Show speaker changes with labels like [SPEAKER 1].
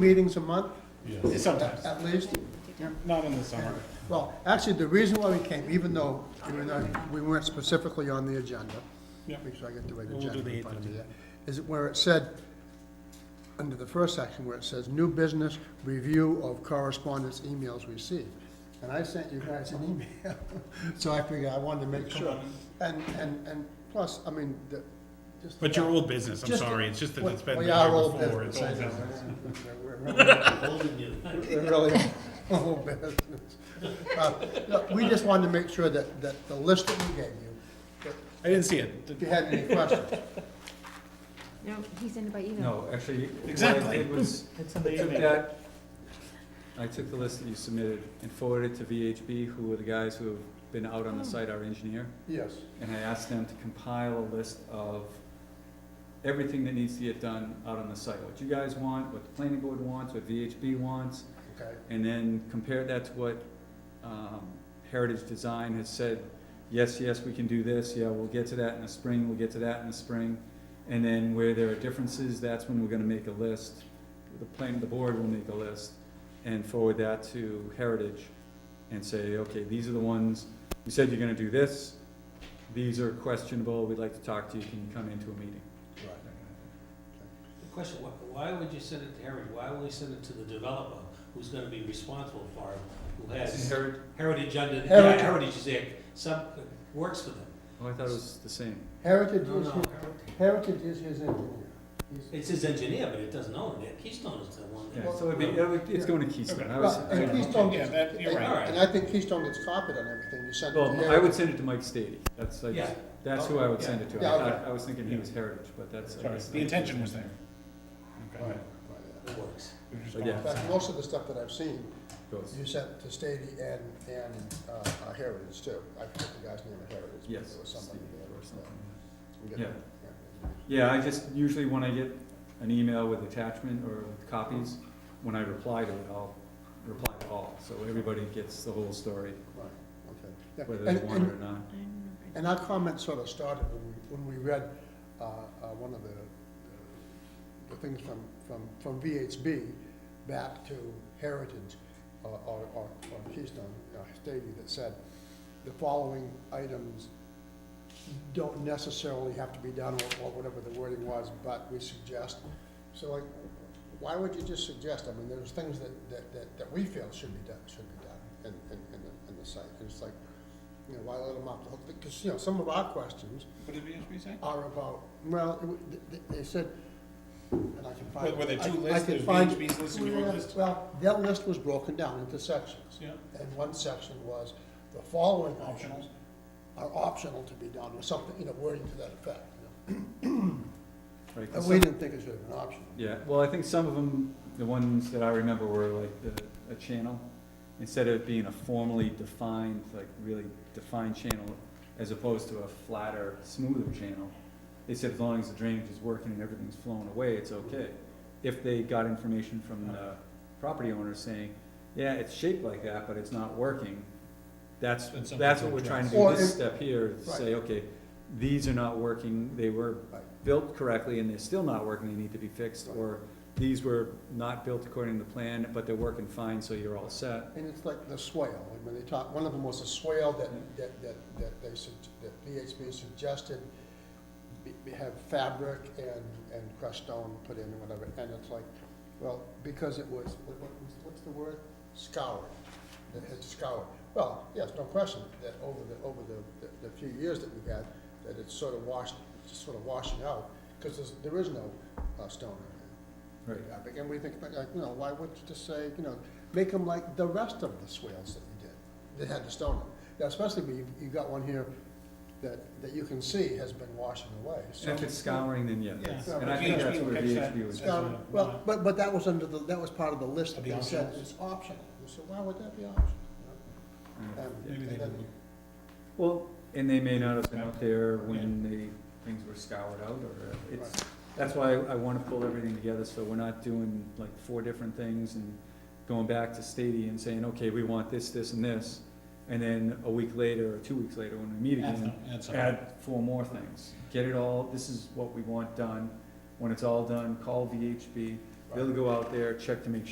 [SPEAKER 1] meetings a month,
[SPEAKER 2] Yes, sometimes,
[SPEAKER 1] at least.
[SPEAKER 2] not in the summer.
[SPEAKER 1] Well, actually, the reason why we came, even though we were not, we weren't specifically on the agenda,
[SPEAKER 2] Yeah.
[SPEAKER 1] make sure I get the right
[SPEAKER 2] We'll do
[SPEAKER 1] agenda
[SPEAKER 2] the
[SPEAKER 1] in front of me there, is it where it said, under the first section where it says, new business, review of correspondence emails received. And I sent you guys an email, so I figured I wanted to make sure. And, and, and plus, I mean, the, just.
[SPEAKER 2] But your old business, I'm
[SPEAKER 1] Just-
[SPEAKER 2] sorry, it's just that it's been the
[SPEAKER 1] Well,
[SPEAKER 2] year
[SPEAKER 1] yeah, our old
[SPEAKER 2] before, it's
[SPEAKER 1] business, I
[SPEAKER 2] old
[SPEAKER 1] know.
[SPEAKER 2] business.
[SPEAKER 1] We're- we're- we're Really, old business. Uh, no, We just wanted to make sure that, that the list that we gave you, that
[SPEAKER 2] I didn't see it.
[SPEAKER 1] if you had any questions.
[SPEAKER 3] No, he sent it by email.
[SPEAKER 4] No, actually, what I
[SPEAKER 2] Exactly.
[SPEAKER 4] did was, I took that, I took the list that you submitted and forwarded it to VHB, who were the guys who have been out on the site, our engineer,
[SPEAKER 1] Yes,
[SPEAKER 4] and I asked them to compile a list of everything that needs to get done out on the site, what you guys want, what the planning board wants, what VHB wants,
[SPEAKER 1] okay,
[SPEAKER 4] and then compare that to what, um, Heritage Design has said, yes, yes, we can do this, yeah, we'll get to that in the spring, we'll get to that in the spring. And then where there are differences, that's when we're gonna make a list, the plan, the board will make a list and forward that to Heritage and say, okay, these are the ones, you said you're gonna do this, these are questionable, we'd like to talk to you, can you come into a meeting?
[SPEAKER 1] right.
[SPEAKER 5] The question, why, why would you send it to Heritage? Why would we send it to the developer who's gonna be responsible for it, who has
[SPEAKER 4] Heritage?
[SPEAKER 5] Heritage under, yeah,
[SPEAKER 1] Heritage.
[SPEAKER 5] Heritage is there, some, works for them.
[SPEAKER 4] Oh, I thought it was the same.
[SPEAKER 1] Heritage
[SPEAKER 5] No,
[SPEAKER 1] is,
[SPEAKER 5] no,
[SPEAKER 1] his-
[SPEAKER 5] Heritage-
[SPEAKER 1] Heritage is his engineer. He's-
[SPEAKER 5] it's his engineer, but it doesn't own it. Keystone is the one
[SPEAKER 4] Yeah,
[SPEAKER 5] that.
[SPEAKER 4] so it'd be, it would- it's going to Keystone. I was-
[SPEAKER 1] Well, And Keystone
[SPEAKER 2] Yeah,
[SPEAKER 1] gets,
[SPEAKER 2] that, you're right.
[SPEAKER 1] and I think Keystone gets copied on everything you sent. to
[SPEAKER 4] Well, I
[SPEAKER 1] Heritage.
[SPEAKER 4] would send it to Mike Stady, that's, I
[SPEAKER 5] Yeah.
[SPEAKER 4] just- that's who I would send it to,
[SPEAKER 1] Yeah,
[SPEAKER 4] I
[SPEAKER 1] okay.
[SPEAKER 4] thought, I was thinking he was Heritage, but that's. I
[SPEAKER 2] Sorry,
[SPEAKER 4] guess
[SPEAKER 2] the
[SPEAKER 4] that's-
[SPEAKER 2] intention was there. Okay.
[SPEAKER 1] Right.
[SPEAKER 5] It works.
[SPEAKER 2] We were just
[SPEAKER 4] But yeah.
[SPEAKER 1] In
[SPEAKER 2] calling.
[SPEAKER 1] fact, most of the stuff that I've seen,
[SPEAKER 4] Goes.
[SPEAKER 1] you sent to Stady and, and uh, uh, Heritage too. I forget the guy's name of Heritage. but
[SPEAKER 4] Yes.
[SPEAKER 1] It was somebody
[SPEAKER 4] Stady
[SPEAKER 1] there.
[SPEAKER 4] or something, yeah.
[SPEAKER 1] Yeah.
[SPEAKER 4] Yeah. Yeah, I just, usually when I get an email with attachment or with copies, when I reply to it, I'll reply to all, so everybody gets the whole story,
[SPEAKER 1] Right, okay. Yeah,
[SPEAKER 4] whether
[SPEAKER 1] and-
[SPEAKER 4] they want
[SPEAKER 1] and-
[SPEAKER 4] it or
[SPEAKER 3] I
[SPEAKER 4] not.
[SPEAKER 3] don't know if I-
[SPEAKER 1] And our comment sort of started when we, when we read, uh, uh, one of the, the things from, from, from VHB back to Heritage, uh, or, or, or Keystone, uh, Stady that said, the following items don't necessarily have to be done, or, or whatever the wording was, but we suggest. So like, why would you just suggest? I mean, there's things that, that, that, that we feel should be done, should be done in, in, in the, in the site. And it's like, you know, why let them off the hook? Because, you know, some of our questions
[SPEAKER 2] What did VSB say?
[SPEAKER 1] are about, well, it w- th- th- they said, and I can
[SPEAKER 2] Were
[SPEAKER 1] find.
[SPEAKER 2] were there
[SPEAKER 1] I-
[SPEAKER 2] two
[SPEAKER 1] I
[SPEAKER 2] lists,
[SPEAKER 1] can
[SPEAKER 2] there's
[SPEAKER 1] find-
[SPEAKER 2] VHB's list and your list?
[SPEAKER 1] Well, their list was broken down into sections.
[SPEAKER 2] Yeah.
[SPEAKER 1] And one section was, the following
[SPEAKER 2] Optional.
[SPEAKER 1] options are optional to be done, or something, you know, wording to that effect. you
[SPEAKER 4] right?
[SPEAKER 1] know. And
[SPEAKER 4] 'Cause
[SPEAKER 1] we
[SPEAKER 4] some-
[SPEAKER 1] didn't think it should have been optional.
[SPEAKER 4] Yeah, well, I think some of them, the ones that I remember were like the, a channel, instead of being a formally defined, like really defined channel, as opposed to a flatter, smoother channel, they said as long as the drainage is working and everything's flowing away, it's okay. If they got information from the property owner saying, yeah, it's shaped like that, but it's not working, that's,
[SPEAKER 2] That's something
[SPEAKER 4] that's
[SPEAKER 2] to
[SPEAKER 4] what we're trying to do,
[SPEAKER 1] address. Or
[SPEAKER 4] this
[SPEAKER 1] if-
[SPEAKER 4] step here, is say, okay, these are not working, they were
[SPEAKER 1] Right.
[SPEAKER 4] built correctly and they're still not working, they need to be fixed, or these were not built according to plan, but they're working fine, so you're all set.
[SPEAKER 1] And it's like the swale, and when they talk, one of them was a swale that, that, that, that they, sug- that VHB suggested be- be- have fabric and, and crushed stone put in and whatever, and it's like, well, because it was, what, what- what's the word? Scoured, it had scoured. Well, yes, no question, that over the, over the, the- the few years that we've had, that it's sort of washed, just sort of washing out, because there's, there is no, uh, stone in there.
[SPEAKER 4] Right.
[SPEAKER 1] Like, And we think, like, you know, why would you just say, you know, make them like the rest of the swales that you did, that had the stone in them. Now, especially when you, you got one here that, that you can see has been washing away, so.
[SPEAKER 4] And if it's scouring, then yeah, that's-
[SPEAKER 2] Yeah.
[SPEAKER 4] and I think that's
[SPEAKER 2] VHB will
[SPEAKER 4] where
[SPEAKER 2] catch
[SPEAKER 4] VHB was.
[SPEAKER 2] that.
[SPEAKER 1] Now, Um, Well, but, but that was under the, that was part of the list that
[SPEAKER 2] Of the
[SPEAKER 1] they said
[SPEAKER 2] options.
[SPEAKER 1] is optional. So why would that be optional?
[SPEAKER 4] Yeah.
[SPEAKER 1] Um,
[SPEAKER 2] Maybe they
[SPEAKER 1] and then-
[SPEAKER 2] didn't.
[SPEAKER 4] Well, and they may not have been out there when they, things were scoured out, or uh, it's, that's why I wanna pull everything together, so we're not doing like four different things and going back to Stady and saying, okay, we want this, this, and this, and then a week later, or two weeks later, when we meet
[SPEAKER 2] That's
[SPEAKER 4] again,
[SPEAKER 2] not- that's all.
[SPEAKER 4] add four more things. Get it all, this is what we want done, when it's all done, call VHB, They'll go out there, check to make sure.